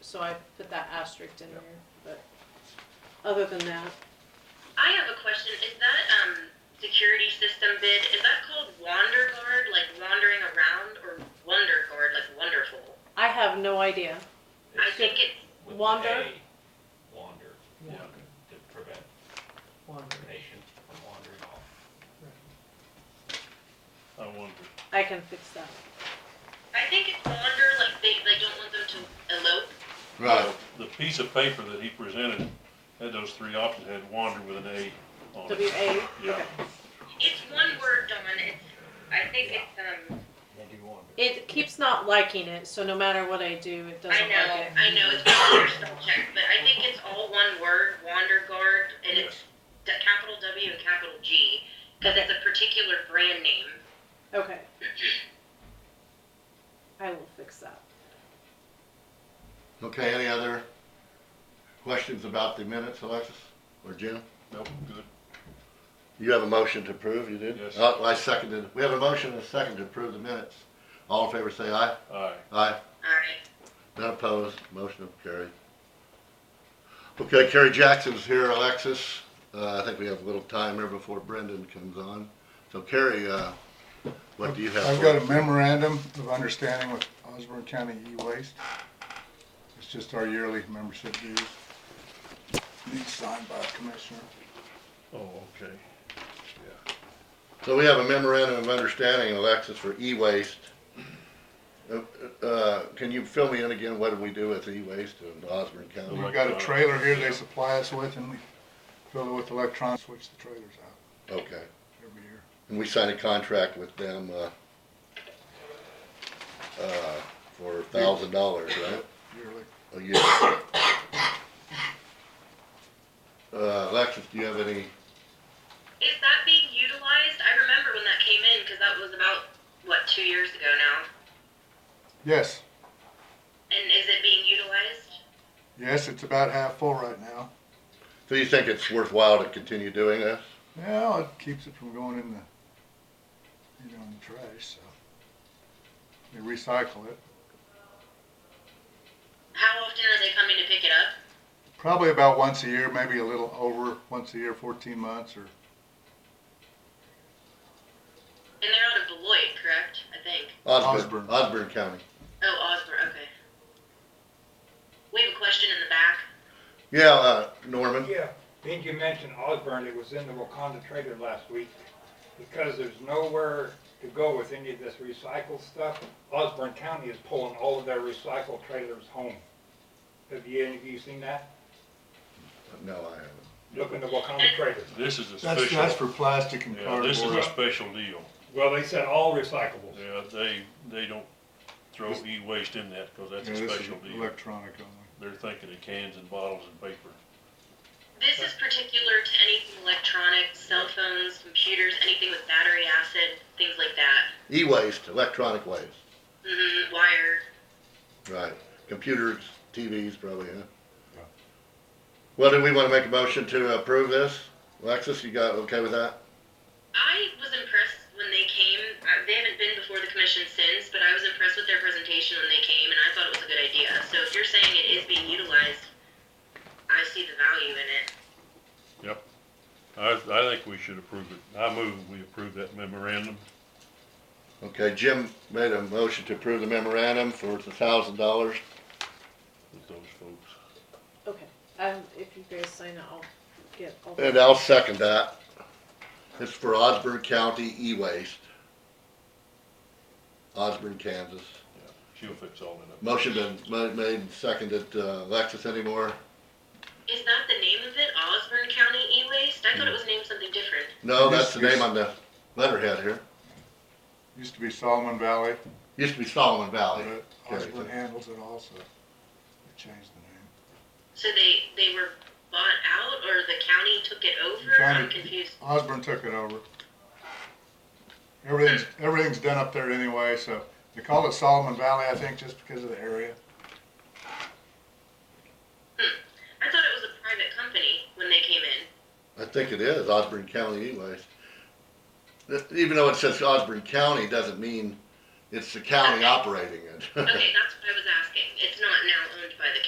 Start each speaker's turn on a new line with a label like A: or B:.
A: so I put that asterisk in there, but other than that,
B: I have a question. Is that um security system bid? Is that called Wander Guard, like wandering around, or Wonder Guard, like wonderful?
A: I have no idea.
B: I think it's
C: with an
A: Wander?
C: A, Wander,
D: Yeah.
C: to prevent
D: Wonder.
C: the nation from wandering off.
E: I wonder.
A: I can fix that.
B: I think it's Wander, like they they don't want them to elope.
F: Uh,
G: Right.
E: The piece of paper that he presented had those three options, had wander with an A on
A: W
E: it.
A: A,
E: Yeah.
A: okay.
B: It's one word, Don. It's I think it's um.
C: They do wander.
A: It keeps not liking it, so no matter what I do, it
B: I
A: doesn't
B: know,
A: like it.
B: I know. It's probably your spell check, but I think it's all one word, Wander Guard, and it's d- capital W and capital G because it's a particular brand name.
A: Okay. I will fix that.
G: Okay, any other questions about the minutes, Alexis or Jim?
E: Nope, good.
G: You have a motion to approve, you did?
E: Yes.
G: Oh, I seconded. We have a motion and a second to approve the minutes. All in favor say aye.
E: Aye.
G: Aye.
B: All right.
G: None opposed. Motion carried. Okay, Kerry Jackson's here, Alexis. Uh, I think we have a little time here before Brendan comes on. So Kerry, uh, what do you have?
F: I've
G: for
F: got a
G: us?
F: memorandum of understanding with Osborne County E-Waste. It's just our yearly membership dues. Needs signed by a commissioner.
E: Oh, okay.
G: So we have a memorandum of understanding, Alexis, for e-waste. Uh, uh, Can you fill me in again, what do we do with e-waste in Osborne County?
F: We've got a trailer here they supply us with and we fill it with electrons, switch the trailers out
G: Okay,
F: every year.
G: and we signed a contract with them, uh, uh, for a thousand dollars, right,
F: yearly.
G: a year. Uh, Alexis, do you have any,
B: Is that being utilized? I remember when that came in because that was about what two years ago now.
F: Yes,
B: And is it being utilized?
F: yes, it's about half full right now.
G: do you think it's worthwhile to continue doing this?
F: Well, it keeps it from going in the, you know, in the trash, so. They recycle it.
B: How often are they coming to pick it up?
F: Probably about once a year, maybe a little over, once a year, fourteen months or
B: And they're out of Beloit, correct? I think.
G: Osborne,
F: Osborne.
G: Osborne County.
B: Oh, Osborne. Okay. We have a question in the back.
G: Yeah, uh, Norman?
H: Yeah, did you mention Osborne, it was in the Wakanda trailer last week, because there's nowhere to go with any of this recycled stuff. Osborne County is pulling all of their recycled trailers home. Have you, have you seen that?
G: No, I haven't.
H: Look in the Wakanda trailer.
E: This is a
F: That's, that's
E: special,
F: for plastic and
E: yeah, this is a
F: cardboard.
E: special deal.
H: Well, they said all recyclables.
E: Yeah, they, they don't throw e-waste in that, cause that's
F: Yeah,
E: a
F: this is
E: special deal.
F: electronic only.
E: They're thinking of cans and bottles and paper.
B: This is particular to anything electronic, cell phones, computers, anything with battery acid, things like that.
G: E-waste, electronic waste,
B: hmm wire.
G: right. Computers, TVs probably, huh? Well, do we want to make a motion to approve this? Alexis, you got, okay with that?
B: I was impressed when they came. I, they haven't been before the commission since, but I was impressed with their presentation when they came, and I thought it was a good idea. So if you're saying it is being utilized, I see the value in it.
E: I, I think we should approve it. I move we approve that memorandum.
G: Okay, Jim made a motion to approve the memorandum for the thousand dollars.
E: with those folks.
A: Okay. Um, if you guys sign it, I'll get all
G: And I'll second that. It's for Osborne County E-Waste. Osborne, Kansas.
E: She'll fix all that up.
G: Motion been ma- made and seconded, uh, Alexis anymore?
B: Is that the name of it? Osborne County E-Waste? I thought it was named something different.
G: No,
F: Yes,
G: that's the name
F: yes.
G: on the letterhead here.
F: Used to be Solomon Valley,
G: Used to be Solomon Valley.
F: but
G: Okay.
F: Osborne handles it also. They changed the
B: So they they were bought out, or the county took it over?
F: County-
B: I'm confused.
F: name. Osborne took it over. Everything's, everything's done up there anyway, so they call it Solomon Valley, I think, just because of the area.
B: I thought it was a private company when they came in.
G: I think it is Osborne County anyways. Even though it says Osborne County, doesn't mean it's the county operating it.
B: Okay, that's what I was